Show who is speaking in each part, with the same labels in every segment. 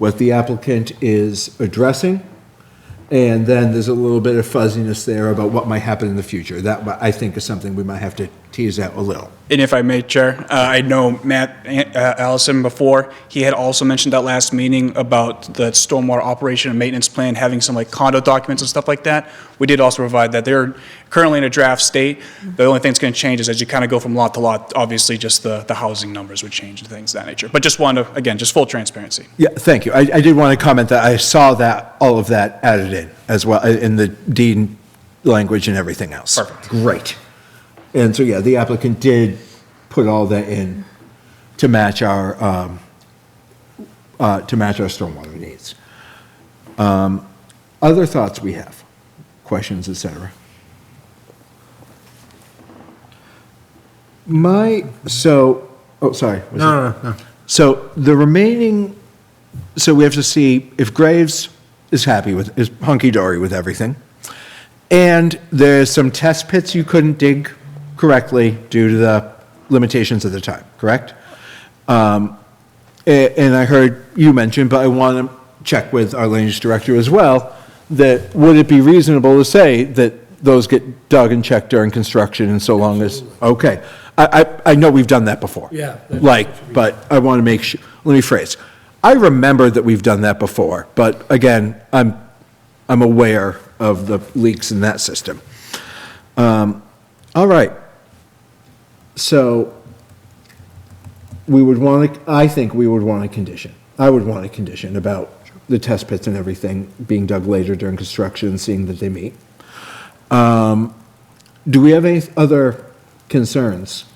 Speaker 1: what the applicant is addressing. And then there's a little bit of fuzziness there about what might happen in the future. That, I think, is something we might have to tease out a little.
Speaker 2: And if I may, Chair, uh, I know Matt uh, Allison before, he had also mentioned that last meeting about the stormwater operation and maintenance plan, having some like condo documents and stuff like that. We did also provide that. They're currently in a draft state. The only thing that's going to change is as you kind of go from lot to lot, obviously, just the, the housing numbers would change and things of that nature. But just wanted, to again, just full transparency.
Speaker 1: Yeah, thank you. I, I did want to comment that I saw that, all of that added in as well, uh, in the deed language and everything else.
Speaker 2: Perfect.
Speaker 1: Great. And so, yeah, the applicant did put all that in to match our, um, uh, to match our stormwater needs. Um, Other thoughts we have, questions, et cetera? My, so, oh, sorry. was it-
Speaker 3: No, no, no.
Speaker 1: so the remaining, so we have to see if Graves is happy with, is hunky-dory with everything. And there's some test pits you couldn't dig correctly due to the limitations of the time, correct? Um, a- And I heard you mention, but I want to check with our land use director as well, that would it be reasonable to say that those get dug and checked during construction and so long as, okay. I, I, I know we've done that before.
Speaker 3: Yeah, that's-
Speaker 1: Like, but I want to make sure, let me phrase. I remember that we've done that before, but again, I'm, I'm aware of the leaks in that system. Um, All right. So we would want to, I think we would want a condition. I would want a condition about the test pits and everything being dug later during construction, seeing that they meet. Um, Do we have any other concerns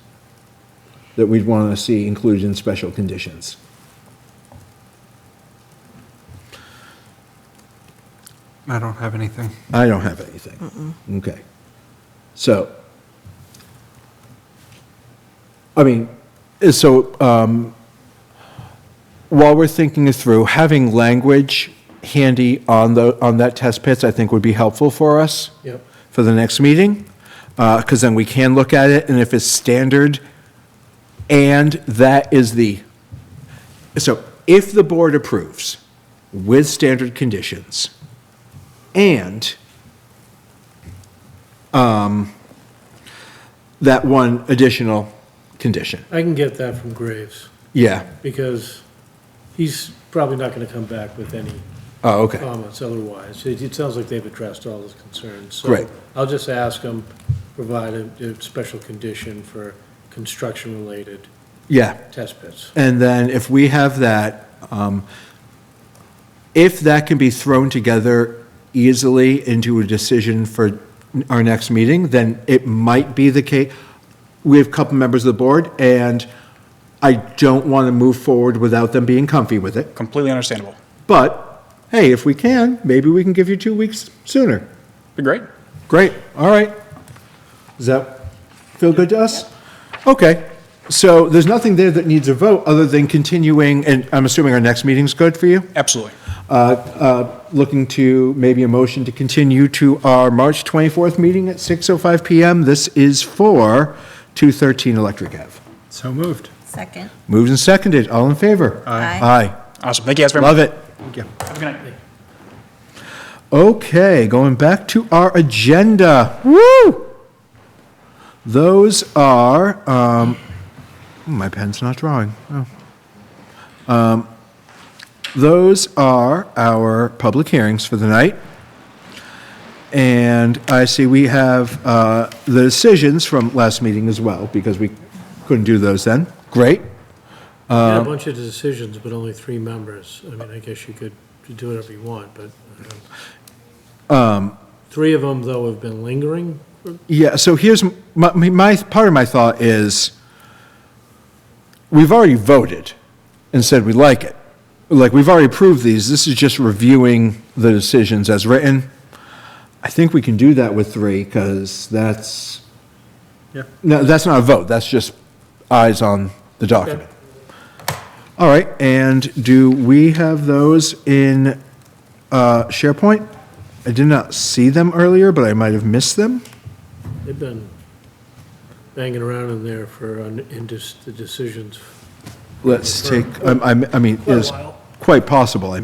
Speaker 1: that we'd want to see included in special conditions?
Speaker 3: I don't have anything.
Speaker 1: I don't have anything. Okay. So, I mean, so um, while we're thinking it through, having language handy on the, on that test pits, I think would be helpful for us.
Speaker 3: Yep.
Speaker 1: For the next meeting, because then we can look at it, and if it's standard, and that is the, so if the board approves with standard conditions, and um, that one additional condition.
Speaker 4: I can get that from Graves,
Speaker 1: Yeah.
Speaker 4: because he's probably not gonna come back with any
Speaker 1: Oh, okay.
Speaker 4: comments otherwise. It, it sounds like they've addressed all his concerns. So
Speaker 1: Great.
Speaker 4: I'll just ask him, provide a, a special condition for construction-related
Speaker 1: Yeah.
Speaker 4: test pits.
Speaker 1: And then if we have that, um, if that can be thrown together easily into a decision for our next meeting, then it might be the case. We have a couple members of the board, and I don't want to move forward without them being comfy with it.
Speaker 2: Completely understandable.
Speaker 1: But, hey, if we can, maybe we can give you two weeks sooner.
Speaker 2: Be great.
Speaker 1: Great, all right. Does that feel good to us? Okay, so there's nothing there that needs a vote, other than continuing, and I'm assuming our next meeting's good for you?
Speaker 2: Absolutely.
Speaker 1: Uh, uh, Looking to maybe a motion to continue to our March 24th meeting at 6:05 PM. This is for 213 Electric Ave.
Speaker 3: So moved.
Speaker 5: Second.
Speaker 1: Moved and seconded, all in favor?
Speaker 5: Aye.
Speaker 1: Aye,
Speaker 2: Awesome. Thank you guys very much.
Speaker 1: love it.
Speaker 2: Have a good night.
Speaker 1: Okay, going back to our agenda. Woo! Those are, um, hmm, my pen's not drawing. Oh. Um, those are our public hearings for the night. And I see we have, uh, the decisions from last meeting as well, because we couldn't do those then. Great.
Speaker 4: Had a bunch of decisions, but only three members. I mean, I guess you could do whatever you want, but. um, Three of them, though, have been lingering.
Speaker 1: Yeah, so here's my, my, part of my thought is, we've already voted and said we like it. Like, we've already approved these, this is just reviewing the decisions as written. I think we can do that with three, because that's,
Speaker 3: Yeah.
Speaker 1: no, that's not a vote, that's just eyes on the document. All right, and do we have those in uh, SharePoint? I did not see them earlier, but I might have missed them.
Speaker 4: They've been banging around in there for, uh, in just the decisions
Speaker 1: Let's take, I'm- I'm- I mean, is, quite possible, I